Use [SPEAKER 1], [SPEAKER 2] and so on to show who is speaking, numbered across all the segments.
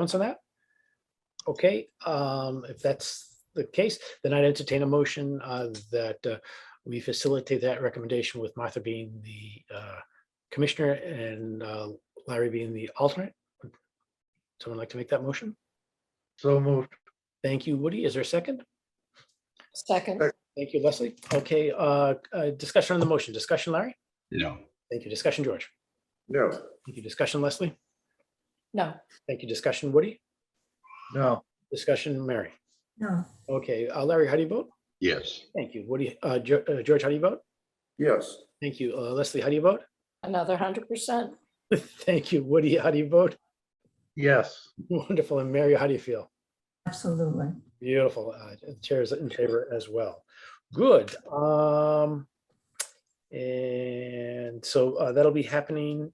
[SPEAKER 1] comments on that? Okay, um, if that's the case, then I'd entertain a motion uh, that uh, we facilitate that recommendation with Martha being the uh, commissioner and uh, Larry being the alternate. Someone like to make that motion?
[SPEAKER 2] So moved.
[SPEAKER 1] Thank you, Woody. Is there a second?
[SPEAKER 3] Second,
[SPEAKER 2] Sec-
[SPEAKER 1] Thank you, Leslie. Okay, uh, uh, discussion on the motion. Discussion, Larry?
[SPEAKER 4] No,
[SPEAKER 1] Thank you. Discussion, George?
[SPEAKER 2] No.
[SPEAKER 1] Thank you. Discussion, Leslie?
[SPEAKER 3] no,
[SPEAKER 1] Thank you. Discussion, Woody?
[SPEAKER 2] No.
[SPEAKER 1] Discussion, Mary?
[SPEAKER 5] No,
[SPEAKER 1] Okay, uh, Larry, how do you vote?
[SPEAKER 4] yes,
[SPEAKER 1] Thank you. Woody, uh, Ge- uh, George, how do you vote?
[SPEAKER 2] Yes.
[SPEAKER 1] Thank you. Uh, Leslie, how do you vote?
[SPEAKER 3] another hundred percent.
[SPEAKER 1] Thank you. Woody, how do you vote?
[SPEAKER 2] Yes.
[SPEAKER 1] Wonderful. And Mary, how do you feel?
[SPEAKER 5] absolutely.
[SPEAKER 1] Beautiful. Uh, Chairs in favor as well. Good. Um, and so uh, that'll be happening.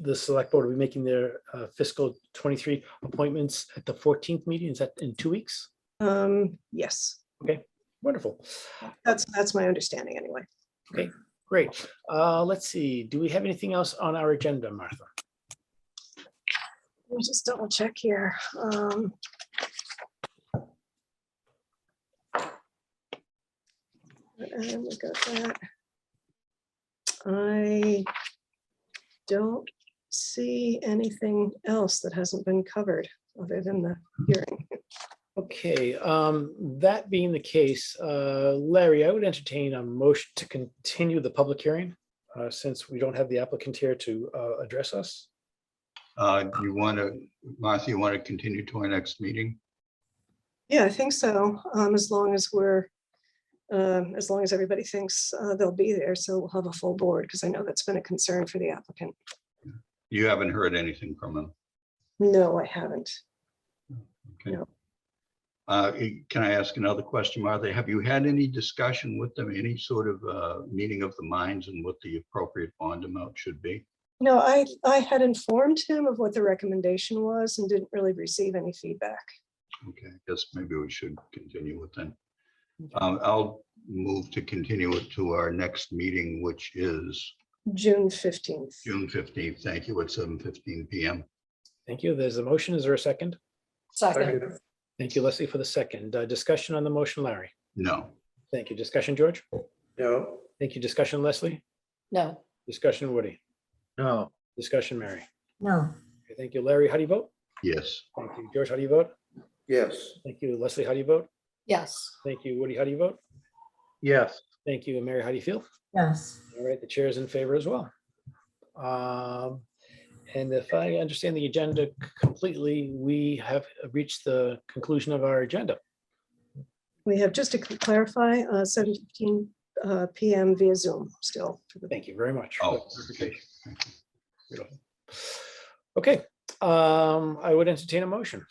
[SPEAKER 1] The select board will be making their uh, fiscal twenty-three appointments at the fourteenth meeting. Is that in two weeks?
[SPEAKER 6] Um, yes,
[SPEAKER 1] Wonderful.
[SPEAKER 6] that's, that's my understanding anyway.
[SPEAKER 1] Great. Uh, let's see. Do we have anything else on our agenda, Martha?
[SPEAKER 6] Let me just double check here. Um. what item we got that? I don't see anything else that hasn't been covered other than the hearing.
[SPEAKER 1] Okay, um, that being the case, uh, Larry, I would entertain a motion to continue the public hearing, uh, since we don't have the applicant here to, uh, address us.
[SPEAKER 4] uh, you want to, Martha, you want to continue to our next meeting?
[SPEAKER 6] Yeah, I think so. Um, as long as we're, um, as long as everybody thinks, uh, they'll be there. So we'll have a full board because I know that's been a concern for the applicant.
[SPEAKER 4] You haven't heard anything from him.
[SPEAKER 6] No, I haven't.
[SPEAKER 4] Okay.
[SPEAKER 6] No.
[SPEAKER 4] Uh, eh, Can I ask another question, Martha? Have you had any discussion with them, any sort of uh, meeting of the minds and what the appropriate bond amount should be?
[SPEAKER 6] No, I, I had informed him of what the recommendation was and didn't really receive any feedback.
[SPEAKER 4] Okay, I guess maybe we should continue with that. Um, I'll move to continue it to our next meeting, which is
[SPEAKER 6] June fifteenth.
[SPEAKER 4] June 15th. Thank you, at 7:15 PM.
[SPEAKER 1] Thank you. There's a motion. Is there a second?
[SPEAKER 3] Second,
[SPEAKER 1] Thank you, Leslie, for the second. Uh, discussion on the motion, Larry.
[SPEAKER 4] No,
[SPEAKER 1] Thank you. Discussion, George.
[SPEAKER 2] No.
[SPEAKER 1] Thank you. Discussion, Leslie.
[SPEAKER 3] no,
[SPEAKER 1] Discussion, Woody.
[SPEAKER 2] No.
[SPEAKER 1] Discussion, Mary.
[SPEAKER 5] No,
[SPEAKER 1] Okay, Thank you, Larry. How do you vote?
[SPEAKER 4] yes,
[SPEAKER 1] Thank you, George. How do you vote?
[SPEAKER 2] Yes.
[SPEAKER 1] Thank you, Leslie. How do you vote?
[SPEAKER 3] yes,
[SPEAKER 1] Thank you, Woody. How do you vote?
[SPEAKER 2] Yes.
[SPEAKER 1] Thank you, and Mary. How do you feel?
[SPEAKER 5] yes,
[SPEAKER 1] All right, the chair is in favor as well. Um, And if I understand the agenda completely, we have reached the conclusion of our agenda.
[SPEAKER 6] We have, just to clarify, uh, seven fifteen, uh, PM via Zoom still. for the-
[SPEAKER 1] Thank you very much. for
[SPEAKER 4] oh,
[SPEAKER 1] that
[SPEAKER 4] okay.
[SPEAKER 1] clarification. Beautiful. Okay, um, I would entertain a motion.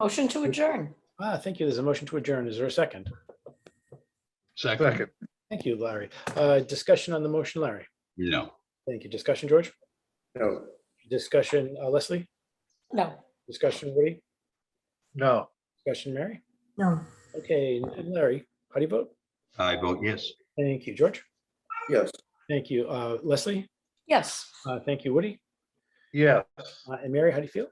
[SPEAKER 3] motion to adjourn.
[SPEAKER 1] Ah, thank you. There's a motion to adjourn. Is there a second?
[SPEAKER 4] Second,
[SPEAKER 2] Second.
[SPEAKER 1] Thank you, Larry. Uh, Discussion on the motion, Larry.
[SPEAKER 4] no,
[SPEAKER 1] Thank you. Discussion, George?
[SPEAKER 2] No.
[SPEAKER 1] Discussion, uh, Leslie?
[SPEAKER 3] No,
[SPEAKER 1] Discussion, Woody?
[SPEAKER 2] No.
[SPEAKER 1] Discussion, Mary?
[SPEAKER 5] no.
[SPEAKER 1] Okay, and Larry, how do you vote?
[SPEAKER 4] I vote yes.
[SPEAKER 1] Thank you, George.
[SPEAKER 2] Yes.
[SPEAKER 1] Thank you, Uh, Leslie.
[SPEAKER 3] yes.
[SPEAKER 1] Uh, Thank you, Woody.
[SPEAKER 2] Yes.
[SPEAKER 1] Uh, And Mary, how do you feel?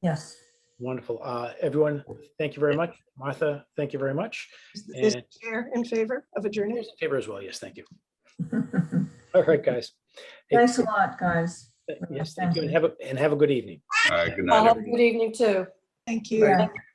[SPEAKER 5] Yes.
[SPEAKER 1] Wonderful. Uh, Everyone, thank you very much. Martha, thank you very much.
[SPEAKER 6] Is is
[SPEAKER 1] And
[SPEAKER 6] the chair in favor of adjournment?
[SPEAKER 1] Chair's in favor as well. Yes, thank you. All right, guys. Hey,
[SPEAKER 5] Thanks a lot, guys.
[SPEAKER 1] Yes, thank you. And have a, and have a good evening.
[SPEAKER 4] All right, good night.
[SPEAKER 3] Well, Have a
[SPEAKER 4] everyone.
[SPEAKER 3] good evening too.
[SPEAKER 6] Thank
[SPEAKER 2] Right.
[SPEAKER 6] you.
[SPEAKER 5] Yeah.